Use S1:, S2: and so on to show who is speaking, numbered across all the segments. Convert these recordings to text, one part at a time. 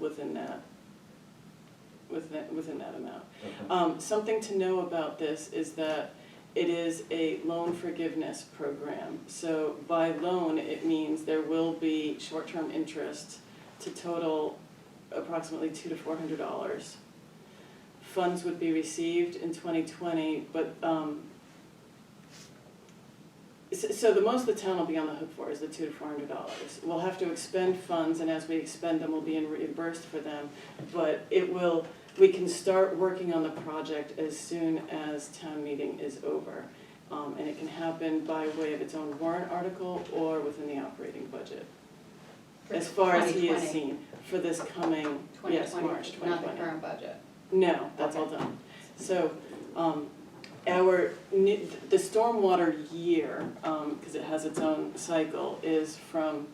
S1: within that, within, within that amount.
S2: Okay.
S1: Um, something to know about this is that it is a loan forgiveness program. So by loan, it means there will be short-term interest to total approximately two to four hundred dollars. Funds would be received in twenty twenty, but, um, so, so the most the town will be on the hook for is the two to four hundred dollars. We'll have to expend funds, and as we expend them, we'll be reimbursed for them, but it will we can start working on the project as soon as town meeting is over. Um, and it can happen by way of its own warrant article or within the operating budget, as far as he has seen, for this coming, yes, March twenty twenty.
S3: Not the current budget.
S1: No, that's all done. So, um, our, ne- the stormwater year, um, cause it has its own cycle, is from,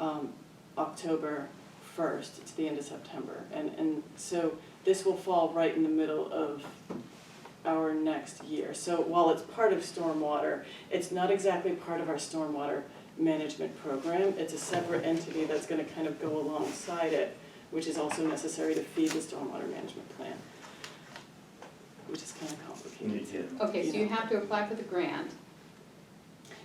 S1: um, October first to the end of September. And, and so this will fall right in the middle of our next year. So while it's part of stormwater, it's not exactly part of our stormwater management program. It's a separate entity that's gonna kind of go alongside it which is also necessary to feed the stormwater management plan, which is kind of complicated.
S2: Yeah.
S3: Okay, so you
S1: You know.
S3: have to apply for the grant.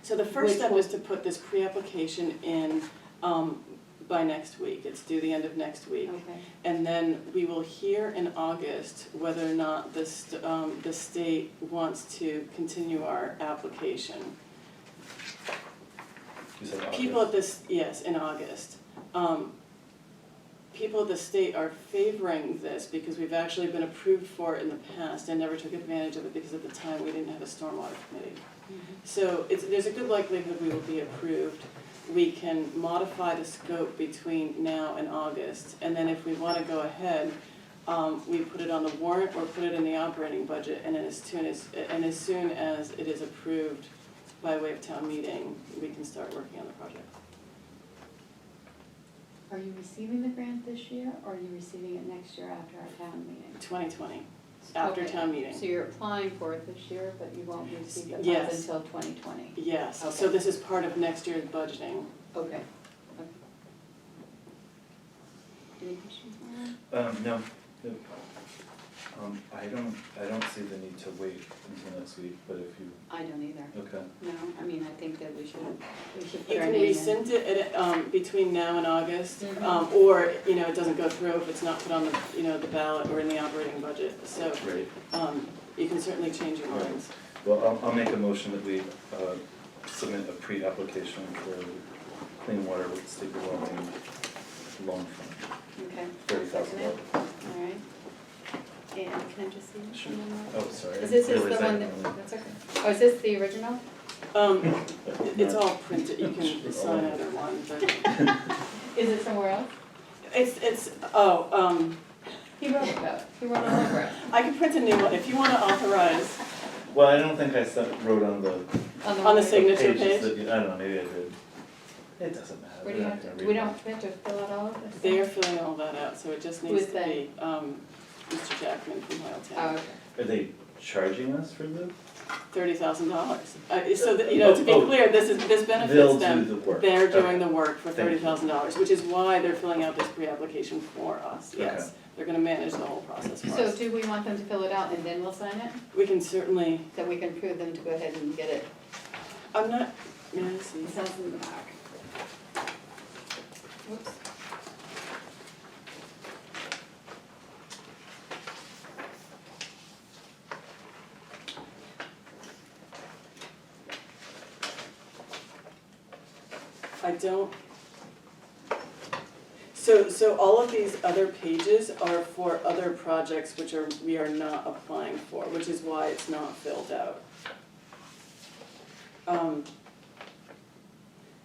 S1: So the first
S3: Which
S1: step
S3: one?
S1: is to put this pre-application in um, by next week. It's due the end of next week.
S3: Okay.
S1: And then we will hear in August whether or not the, st- um, the state wants to continue our application.
S2: You said August.
S1: People at this, yes, in August. Um, People at the state are favoring this because we've actually been approved for it in the past and never took advantage of it because at the time we didn't have a stormwater committee. So it's, there's a good likelihood we will be approved. We can modify the scope between now and August. And then if we wanna go ahead, um, we put it on the warrant or put it in the operating budget. And then as soon as, and as soon as it is approved by way of town meeting, we can start working on the project.
S3: Are you receiving the grant this year, or are you receiving it next year after our town meeting?
S1: Twenty twenty, after
S3: Okay,
S1: town meeting.
S3: So you're applying for it this year, but you won't receive the funds
S1: Yes.
S3: until twenty twenty?
S1: Yes, so
S3: Okay.
S1: this is part of next year's budgeting.
S3: Okay. Okay. Any questions, Marla?
S2: Um, no, no. Um, I don't, I don't see the need to wait until next week, but if you,
S3: I don't either.
S2: okay,
S3: No, I mean, I think that we should, we should put
S1: You
S3: our
S1: can
S3: name in.
S1: rescind it at, um, between now and August,
S3: Mhm.
S1: um, or, you know, it doesn't go through if it's not put on the, you know, the ballot or in the operating budget. So,
S2: great.
S1: um, you can certainly change your
S2: Right.
S1: minds.
S2: Well, I'll, I'll make a motion that we, uh, submit a pre-application for clean water with state revolving loan fund,
S3: Okay.
S2: thirty thousand dollars.
S3: All right. And can I just see this
S2: Sure.
S3: one more?
S2: Oh, sorry.
S3: Is this is
S2: Where
S3: the
S2: was
S3: one
S2: that?
S3: that, that's okay. Oh, is this the original?
S1: Um, it's all printed, you can sign either one, but,
S3: Is it somewhere else?
S1: it's, it's, oh, um,
S3: He wrote about it. He wrote all over it.
S1: I can print a new one, if you wanna authorize
S2: Well, I don't think I sent, wrote on the
S1: on the
S3: way-
S1: signature
S2: pages
S1: page,
S2: that, you- I don't know, maybe I did. It doesn't matter,
S3: Where
S2: we're
S3: do you
S2: not
S3: have
S2: gonna
S3: to,
S2: read
S3: we
S2: that.
S3: don't, we have to fill out all of this?
S1: they're filling all that out, so it just needs
S3: Who's
S1: to
S3: they?
S1: be, um, Mr. Jackman from Hoyleton.
S3: Oh, okay.
S2: Are they charging us for this?
S1: thirty thousand dollars. Uh, so that, you know, to be
S2: Oh, oh.
S1: clear, this is, this benefits
S2: They'll do
S1: them.
S2: the work.
S1: They're
S2: Okay.
S1: doing the work for
S2: Thank
S1: thirty
S2: you.
S1: thousand dollars, which is why they're filling out this pre-application for us,
S2: Okay.
S1: yes. They're gonna manage the whole process for
S3: So
S1: us.
S3: do we want them to fill it out and then we'll sign it?
S1: We can certainly,
S3: That we can prove them to go ahead and get it.
S1: I'm not, yeah, I see.
S3: It's not in the back. Whoops.
S1: I don't. So, so all of these other pages are for other projects which are, we are not applying for, which is why it's not filled out. Um,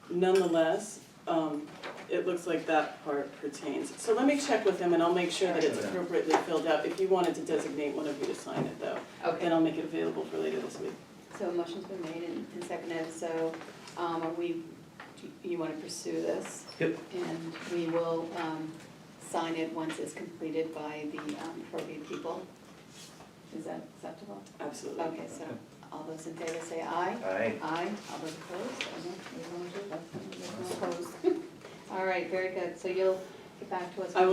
S1: Nonetheless, um, it looks like that part pertains. So let me check with them and I'll make sure that it's
S2: Okay.
S1: appropriately filled out. If you wanted to designate one of you to sign it though,
S3: Okay.
S1: then I'll make it available for later this week.
S3: So a motion's been made and and seconded, so um, are we, do you want to pursue this?
S2: Yep.
S3: And we will um, sign it once it's completed by the um, appropriate people. Is that acceptable?
S1: Absolutely.
S3: Okay, so all those in favor say aye.
S2: Aye.
S3: Aye, all those opposed? Oh, no, we don't do that. There's no opposed. All right, very good, so you'll get back to us.
S1: I will